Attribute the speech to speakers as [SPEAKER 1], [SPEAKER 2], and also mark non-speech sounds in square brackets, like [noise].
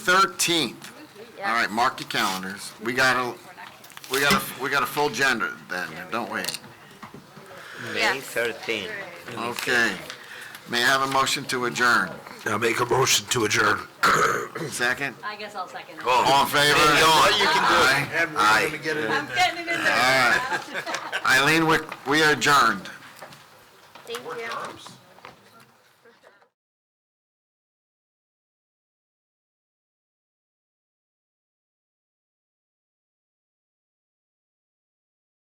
[SPEAKER 1] 13th. All right, mark your calendars. We got a, we got a, we got a full agenda then, don't we?
[SPEAKER 2] Yeah.
[SPEAKER 3] May 13.
[SPEAKER 1] Okay. May I have a motion to adjourn?
[SPEAKER 4] I'll make a motion to adjourn. Oh.
[SPEAKER 1] Second?
[SPEAKER 2] I guess I'll second it.
[SPEAKER 1] All in favor?
[SPEAKER 4] you
[SPEAKER 1] Aye.
[SPEAKER 4] Aye.
[SPEAKER 2] I'm getting it in there. [laughs]
[SPEAKER 1] All right. Eileen, we we are adjourned.
[SPEAKER 2] Thank you.
[SPEAKER 5] Terms?